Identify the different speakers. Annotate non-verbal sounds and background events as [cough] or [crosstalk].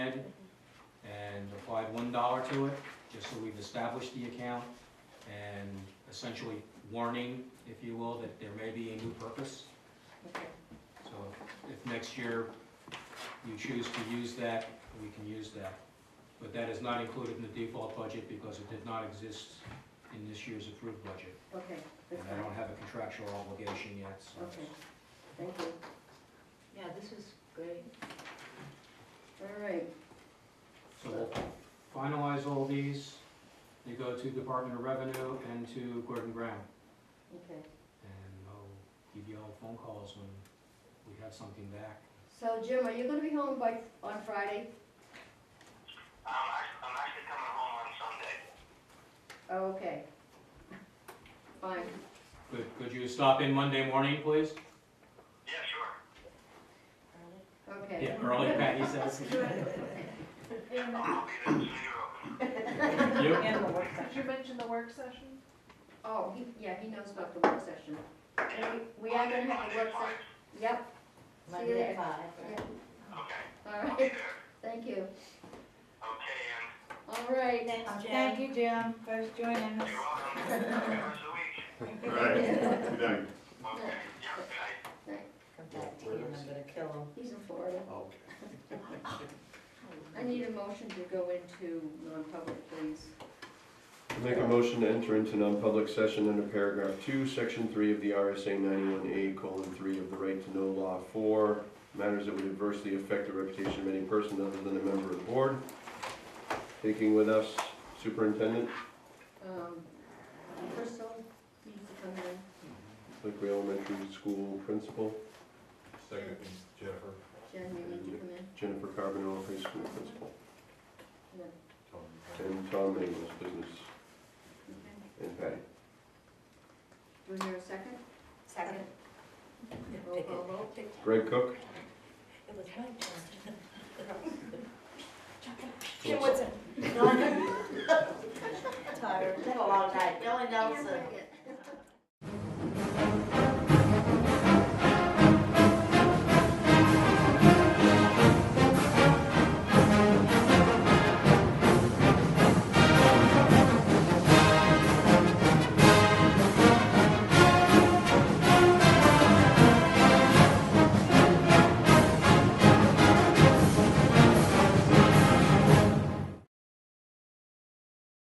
Speaker 1: and applied one dollar to it, just so we've established the account and essentially warning, if you will, that there may be a new purpose.
Speaker 2: Okay.
Speaker 1: So if next year you choose to use that, we can use that. But that is not included in the default budget because it did not exist in this year's approved budget.
Speaker 2: Okay,
Speaker 1: And
Speaker 2: that's
Speaker 1: I
Speaker 2: fine.
Speaker 1: don't have a contractual obligation yet, so.
Speaker 2: Okay, thank you.
Speaker 3: Yeah, this was great.
Speaker 2: All right,
Speaker 1: So we'll finalize all these, they go to Department of Revenue and to Gordon Brown.
Speaker 2: okay.
Speaker 1: And I'll give you all phone calls when we have something back.
Speaker 2: So Jim, are you gonna be home by, on Friday?
Speaker 4: I'm actually, I'm actually coming home on Sunday.
Speaker 2: Oh, okay. [laughs] Fine,
Speaker 1: Could, could you stop in Monday morning, please?
Speaker 4: Yeah, sure.
Speaker 2: okay.
Speaker 1: Yeah, early, Patty says.
Speaker 4: I'll be there as soon as you're open.
Speaker 1: You?
Speaker 5: And the work
Speaker 3: Did you mention the work session?
Speaker 2: [laughs] Oh, he, yeah, he knows about the work session. And we, we are gonna have a work session, yep, See you
Speaker 5: Monday
Speaker 2: there.
Speaker 5: at five, right?
Speaker 2: yeah,
Speaker 4: Okay,
Speaker 2: all
Speaker 4: I'll be
Speaker 2: right, [laughs]
Speaker 4: there.
Speaker 2: thank you.
Speaker 4: Okay, and
Speaker 2: All right.
Speaker 5: Thank
Speaker 3: you, Jim, for joining
Speaker 4: you're welcome. Have a good rest of the week.
Speaker 6: Right, good night.
Speaker 4: Okay, yeah, good night.
Speaker 5: Come back to you and I'm gonna kill him.
Speaker 2: He's in Florida.
Speaker 6: Okay.
Speaker 2: I need a motion to go into non-public, please.
Speaker 6: Make a motion to enter into non-public session under paragraph two, section three of the RSA ninety-one A colon three of the right to know law for matters that would adversely affect the reputation of any person other than a member of the board. Taking with us superintendent,
Speaker 2: Um, Crystal needs to come in,
Speaker 6: Lakeway Elementary School principal,
Speaker 2: Second,
Speaker 7: Jennifer.
Speaker 2: Jen, you need to come in,
Speaker 6: Jennifer Carbonell, high school principal,
Speaker 2: yeah,
Speaker 6: and Tom Mingles, business,
Speaker 2: okay.
Speaker 6: and Patty.
Speaker 2: Was there a second?
Speaker 5: Second.
Speaker 2: Roll call vote?
Speaker 6: Greg Cook,
Speaker 5: It was my turn.
Speaker 6: Jim
Speaker 5: Woodson. Tired, had a long night. Billy Nelson,